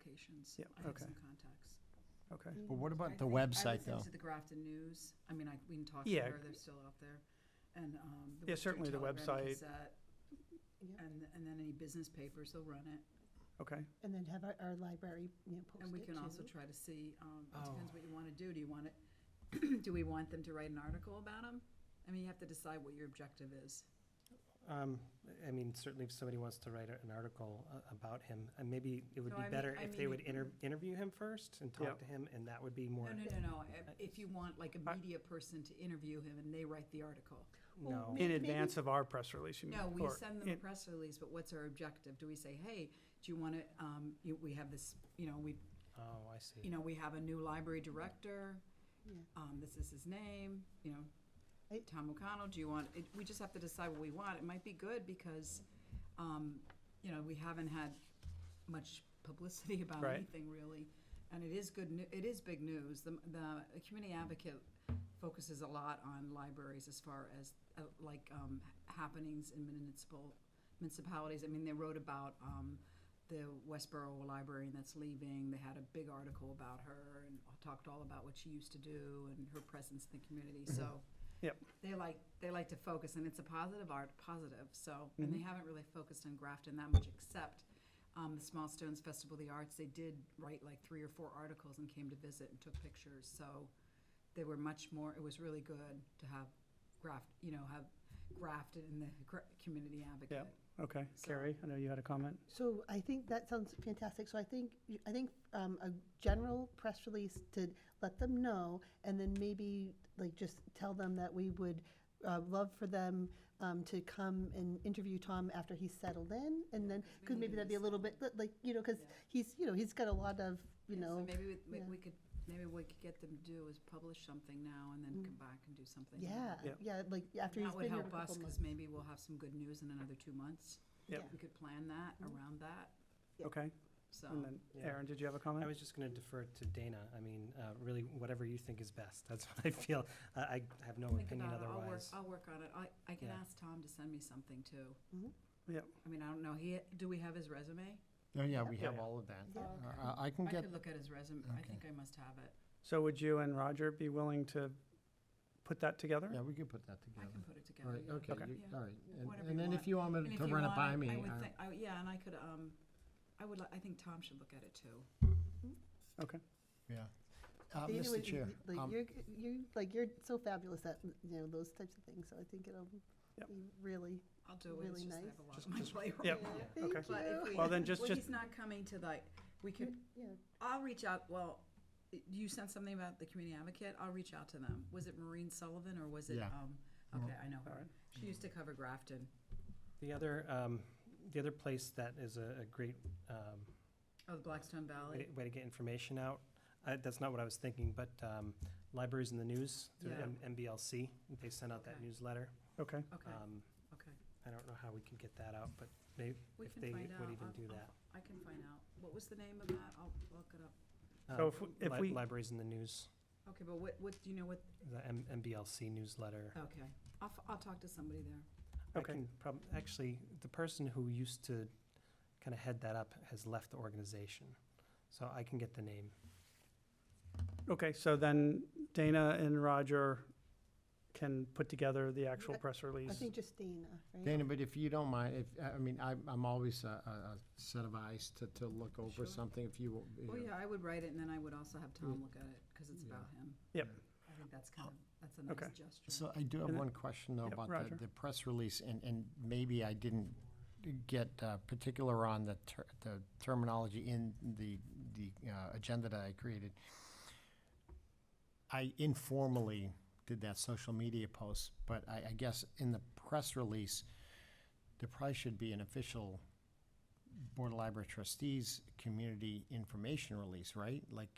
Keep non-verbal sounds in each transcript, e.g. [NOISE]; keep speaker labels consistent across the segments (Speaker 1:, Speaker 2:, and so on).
Speaker 1: operations.
Speaker 2: Yep,
Speaker 1: I have
Speaker 2: okay.
Speaker 1: some contacts.
Speaker 2: Okay.
Speaker 3: But what
Speaker 1: I
Speaker 3: about the
Speaker 1: think- I
Speaker 3: website,
Speaker 1: looked
Speaker 3: though?
Speaker 1: into the Grafton News. I mean, I, we can talk to
Speaker 2: Yeah.
Speaker 1: her, they're still out there. And, um. the
Speaker 2: Yeah,
Speaker 1: Worcester
Speaker 2: certainly the
Speaker 1: Telegram,
Speaker 2: website.
Speaker 1: Gazette,
Speaker 3: Yep.
Speaker 1: And, and then any business papers, they'll run it.
Speaker 2: Okay.
Speaker 3: And then have our, our library, you know, post it
Speaker 1: And we can also
Speaker 3: too.
Speaker 1: try to see, um, it
Speaker 3: Oh.
Speaker 1: depends what you want to do. Do you want it, [CLEARS THROAT] do we want them to write an article about them? I mean, you have to decide what your objective is.
Speaker 4: Um, I mean, certainly if somebody wants to write an article a- about him, and maybe it would
Speaker 1: No,
Speaker 4: be
Speaker 1: I mean-
Speaker 4: better
Speaker 1: I
Speaker 4: if they
Speaker 1: mean-
Speaker 4: would inter- interview him first and
Speaker 2: Yeah.
Speaker 4: talk to him, and that would be
Speaker 1: No,
Speaker 4: more,
Speaker 1: no, no, no. If-
Speaker 4: I-
Speaker 1: If you want like a
Speaker 2: I-
Speaker 1: media person to interview him and they write the article.
Speaker 4: no.
Speaker 3: May-
Speaker 2: In
Speaker 3: maybe-
Speaker 2: advance of our press release, you mean?
Speaker 1: No, we
Speaker 2: or
Speaker 1: send them a
Speaker 2: in-
Speaker 1: press release, but what's our objective? Do we say, hey, do you want to, um, you, we have this, you know, we,
Speaker 4: Oh, I
Speaker 1: you
Speaker 4: see.
Speaker 1: know, we have a new library director.
Speaker 3: Yeah.
Speaker 1: Um, this is his name, you know,
Speaker 3: I-
Speaker 1: Tom O'Connell, do you want, it, we just have to decide what we want. It might be good because, um, you know, we haven't had much publicity [LAUGHS] about
Speaker 2: Right.
Speaker 1: anything really. And it is good, nu- it is big news. The, the community advocate focuses a lot on libraries as far as, uh, like, um, happenings in municipal, municipalities. I mean, they wrote about, um, the Westboro librarian that's leaving. They had a big article about her and talked all about what she used to do and her presence in the community. So
Speaker 2: Yep.
Speaker 1: they like they like to focus, and it's a positive art, positive. So and they haven't really focused on Grafton that much, except um, the Small Stones Festival of the Arts. They did write like three or four articles and came to visit and took pictures. So they were much more. It was really good to have graft, you know, have grafted in the gra- community advocate.
Speaker 2: Yeah. Okay.
Speaker 1: So-
Speaker 2: Carrie, I know you had a comment.
Speaker 3: So I think that sounds fantastic. So I think, I think um, a general press release to let them know, and then maybe like just tell them that we would uh, love for them um, to come and interview Tom after he's settled in, and then,
Speaker 1: we
Speaker 3: because
Speaker 1: need
Speaker 3: maybe
Speaker 1: to
Speaker 3: that'd be a little bit, like, you know, because
Speaker 1: Yeah.
Speaker 3: he's, you know, he's got a lot of, you
Speaker 1: Yeah, so
Speaker 3: know,
Speaker 1: maybe we,
Speaker 3: yeah.
Speaker 1: we could maybe what we could get them to do is publish something now and then come back and do something.
Speaker 2: Yeah.
Speaker 3: Mm. yeah, yeah, like after he's
Speaker 1: That would
Speaker 3: been here for a
Speaker 1: help us
Speaker 3: couple
Speaker 1: because
Speaker 3: months.
Speaker 1: maybe we'll have some good news in another two months.
Speaker 2: Yep.
Speaker 3: Yeah.
Speaker 1: We could plan that
Speaker 3: Mm-hmm.
Speaker 1: around that.
Speaker 3: Yeah.
Speaker 2: Okay. And
Speaker 1: So
Speaker 2: then Aaron, did you have a comment?
Speaker 4: I was just gonna defer to Dana. I mean, uh, really, whatever you think is best, [LAUGHS] that's what I feel. I, I have no
Speaker 1: think
Speaker 4: opinion
Speaker 1: about it. I'll work,
Speaker 4: otherwise.
Speaker 1: I'll work on it. I, I can
Speaker 4: Yeah.
Speaker 1: ask Tom to send me something too.
Speaker 3: Mm-hmm.
Speaker 2: Yep.
Speaker 1: I mean, I don't know. He, do we have his resume?
Speaker 5: Oh, yeah, we
Speaker 2: Yeah.
Speaker 5: have all of that.
Speaker 3: Yeah.
Speaker 5: Uh, I can
Speaker 1: I
Speaker 5: get,
Speaker 1: could look at his resume. I think I must have it.
Speaker 2: So would you and Roger be willing to put that together?
Speaker 5: yeah, we could put that
Speaker 1: I
Speaker 5: together.
Speaker 1: can put it
Speaker 5: All
Speaker 1: together.
Speaker 5: right,
Speaker 1: yeah.
Speaker 5: okay, you-
Speaker 1: Yeah.
Speaker 5: all right. And-
Speaker 1: Whatever
Speaker 5: And
Speaker 1: you
Speaker 5: then if you want
Speaker 1: And
Speaker 5: me
Speaker 1: if
Speaker 5: to
Speaker 1: you
Speaker 5: run it
Speaker 1: want,
Speaker 5: by
Speaker 1: I-
Speaker 5: me,
Speaker 1: I would
Speaker 5: uh,
Speaker 1: think, I- yeah, and I could, um, I would, li- I think Tom should look at it too.
Speaker 2: Okay.
Speaker 5: yeah. Uh,
Speaker 3: You know,
Speaker 5: Mr.
Speaker 3: it-
Speaker 5: Chair,
Speaker 3: Like
Speaker 5: um,
Speaker 3: you're, you like you're so fabulous at you know those types of things. So I think it'll
Speaker 2: Yep.
Speaker 3: be really.
Speaker 1: I'll do it. It's
Speaker 3: Really
Speaker 1: just I
Speaker 3: nice.
Speaker 1: have a lot on my plate right
Speaker 2: Yep.
Speaker 1: now.
Speaker 4: Yeah.
Speaker 3: Thank
Speaker 2: Okay.
Speaker 1: [LAUGHS] But if
Speaker 3: you.
Speaker 1: we-
Speaker 2: Well, then just-
Speaker 1: well,
Speaker 2: just-
Speaker 1: he's not coming to like, we could,
Speaker 3: Yeah.
Speaker 1: I'll reach out, well, you sent something about the community advocate, I'll reach out to them. Was it Maureen Sullivan or was it,
Speaker 5: Yeah.
Speaker 1: um, okay, I know
Speaker 2: All
Speaker 1: her.
Speaker 2: right.
Speaker 1: She used to cover Grafton.
Speaker 4: The other, um, the other place that is a, a great, um,
Speaker 1: Oh, the Blackstone
Speaker 4: way
Speaker 1: Valley.
Speaker 4: to- way to get information out. I- That's not what I was thinking, but um, Libraries in the News, through
Speaker 1: Yeah.
Speaker 4: M- MBLC, they sent out that
Speaker 1: Okay.
Speaker 4: newsletter.
Speaker 2: Okay.
Speaker 1: Okay,
Speaker 4: Um,
Speaker 1: okay.
Speaker 4: I don't know how we can get that out, but maybe,
Speaker 1: We
Speaker 4: if
Speaker 1: can
Speaker 4: they
Speaker 1: find out.
Speaker 4: would even
Speaker 1: I'll-
Speaker 4: do
Speaker 1: I'll-
Speaker 4: that.
Speaker 1: I can find out. What was the name of that? I'll look it up.
Speaker 2: So
Speaker 1: Oh.
Speaker 4: Um,
Speaker 2: if we- if
Speaker 4: Li-
Speaker 2: we-
Speaker 4: Libraries in the News,
Speaker 1: Okay, but what, what, do you know what,
Speaker 4: the M- MBLC newsletter.
Speaker 1: okay. I'll, f- I'll talk to somebody there.
Speaker 4: I
Speaker 2: Okay.
Speaker 4: can prob, actually, the person who used to kind of head that up has left the organization, so I can get the name.
Speaker 2: Okay, so then Dana and Roger can put together the actual press
Speaker 3: I
Speaker 2: release.
Speaker 3: think just Dana, right?
Speaker 5: Dana, but if you don't mind, if, I I mean, I'm, I'm always a, a a set of eyes to, to look over
Speaker 1: Sure.
Speaker 5: something if you. will-
Speaker 1: Well, yeah, I would write it and then I would also have Tom look at it because it's about him.
Speaker 2: Yep.
Speaker 1: I think that's kind of, that's a
Speaker 2: Okay.
Speaker 1: nice gesture.
Speaker 5: So I do have
Speaker 2: And-
Speaker 5: one question though
Speaker 2: Yep,
Speaker 5: about
Speaker 2: Roger.
Speaker 5: the, the press release and, and maybe I didn't get uh, particular on the ter- the terminology in the, the uh, agenda that I created. I informally did that social media post, but I, I guess in the press release, there probably should be an official Board of Library Trustees community information release, right? Like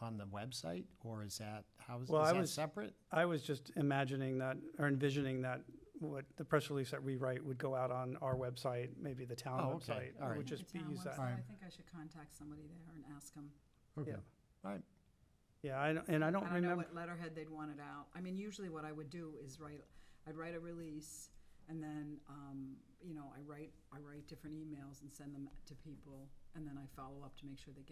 Speaker 5: on the website, or is that, how is, is
Speaker 2: Well, I
Speaker 5: that
Speaker 2: was-
Speaker 5: separate?
Speaker 2: I was just imagining that, or envisioning that, what the press release that we write would go out on our website, maybe the town
Speaker 5: Oh, okay.
Speaker 2: website.
Speaker 5: All
Speaker 2: It
Speaker 5: right.
Speaker 2: would just be
Speaker 1: The town
Speaker 2: used
Speaker 1: website,
Speaker 2: that.
Speaker 1: I think I should contact somebody there and ask them.
Speaker 5: Okay,
Speaker 2: Yeah.
Speaker 5: all right.
Speaker 2: Yeah, I don't- and I don't
Speaker 1: I don't know
Speaker 2: remember,
Speaker 1: what letterhead they'd want it out. I mean, usually what I would do is write, I'd write a release and then, um, you know, I write, I write different emails and send them to people. And then I follow up to make sure they get